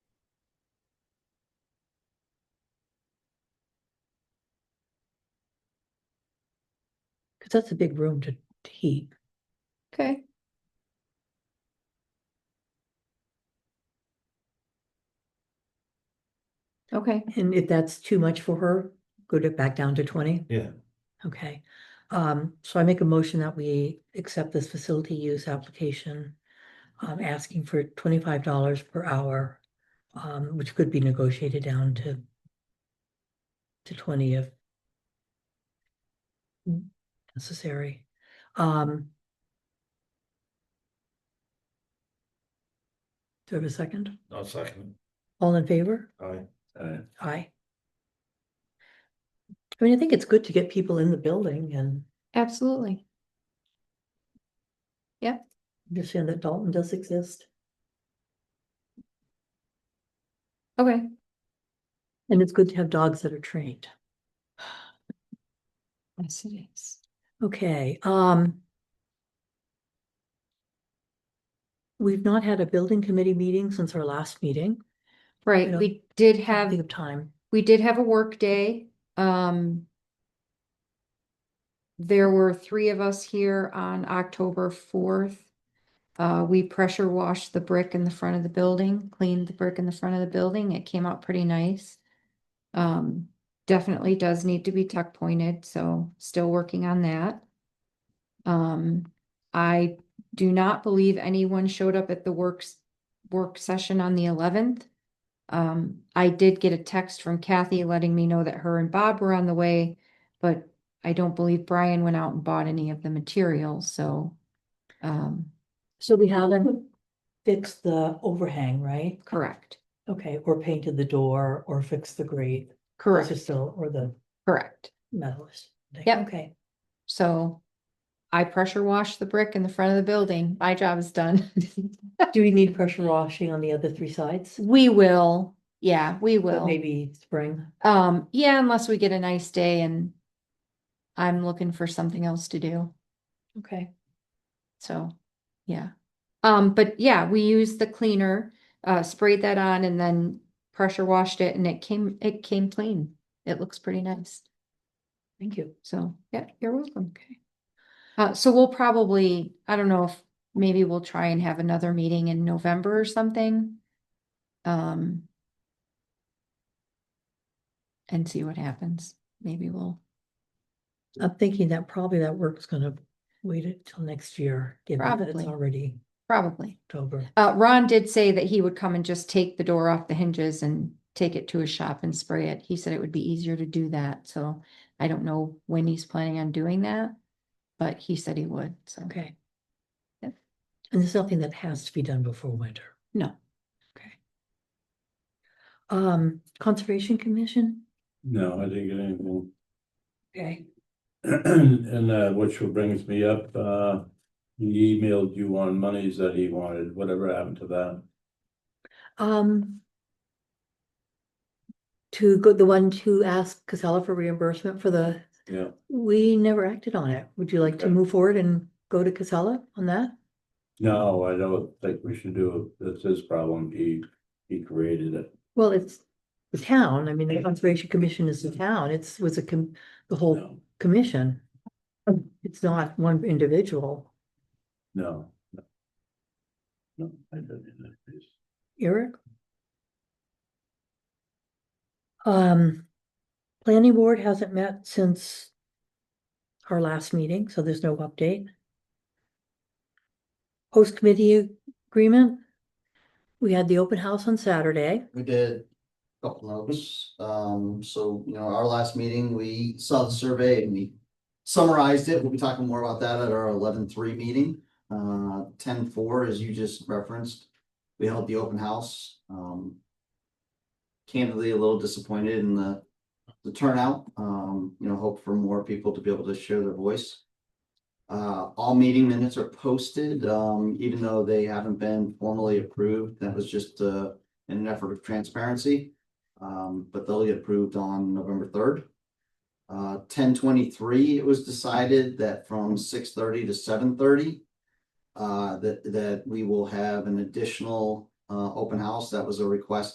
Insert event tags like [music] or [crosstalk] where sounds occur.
That's a big room to to heat. Okay. Okay, And if that's too much for her, go to back down to twenty? Yeah. Okay, um, so I make a motion that we accept this facility use application. Um, asking for twenty-five dollars per hour, um, which could be negotiated down to. To twenty if. Necessary, um. Do I have a second? I'll second. All in favor? Aye. Aye. I mean, I think it's good to get people in the building and absolutely. understand that Dalton does exist. Okay, And it's good to have dogs that are trained. yes, it is. Okay, um. We've not had a building committee meeting since our last meeting. Right, don't- we did Can't have, Think of time. we did have a work day, um. There were three of us here on October fourth. Uh, we pressure washed the brick in the front of the building, cleaned the brick in the front of the building. It came out pretty nice. Um, definitely does need to be tuck pointed, so still working on that. Um, I do not believe anyone showed up at the works, work session on the eleventh. Um, I did get a text from Kathy letting me know that her and Bob were on the way, but I don't believe Brian went out and bought any of the materials, so. Um, So we haven't fixed the overhang, right? correct, Okay, or painted the door or fixed the grate. Or correct, still, or the correct. metals. Yep. Okay, So I pressure washed the brick in the front of the building. My job is done. [laughs] do we need pressure washing on the other three sides? We will, yeah, we But will. Maybe spring. Um, yeah, unless we get a nice day and I'm looking for something else to do. Okay. So, yeah. Um, but yeah, we used the cleaner, uh, sprayed that on and then pressure washed it and it came, it came clean. It looks pretty nice. Thank you. So, yeah, you're welcome. Okay. Uh, so we'll probably, I don't know if maybe we'll try and have another meeting in November or something. Um. And see what happens. Maybe we'll, I'm thinking that probably that work's gonna wait until next year, given that it's Probably. already probably. October. Uh, Ron did say that he would come and just take the door off the hinges and take it to his shop and spray it. He said it would be easier to do that, so I don't know when he's planning on doing that. But he said he would, so. Okay. And Yep. there's nothing that has to be done before winter. No. Okay. Um, Conservation Commission? No, I didn't get anything. [clears throat] Okay. And uh, which will brings me up, uh, he emailed you on monies that he wanted, whatever happened to that? Um. To go, the one to ask Casella for reimbursement for the, Yeah, we never acted on it. Would you like to Okay. move forward and go to Casella on that? no, I don't think we should do it. That's his problem. He, he created it. Well, it's the town, I mean, the Conservation Commission is the town, it's, was a, com- the whole No, commission. It's not one individual. no. no. No, I didn't. Eric? Um, planning board hasn't met since our last meeting, so there's no update. Host committee agreement. We had the open house on Saturday. We did a couple notes, um, so, you know, our last meeting, we saw the survey and we summarized it, we'll be talking more about that at our eleven-three meeting. Uh, ten-four, as you just referenced, we held the open house, um. Candidly, a little disappointed in the, the turnout, um, you know, hope for more people to be able to share their voice. Uh, all meeting minutes are posted, um, even though they haven't been formally approved, that was just, uh, in an effort of transparency. Um, but they'll get approved on November third. Uh, ten twenty-three, it was decided that from six thirty to seven thirty. Uh, that, that we will have an additional, uh, open house. That was a request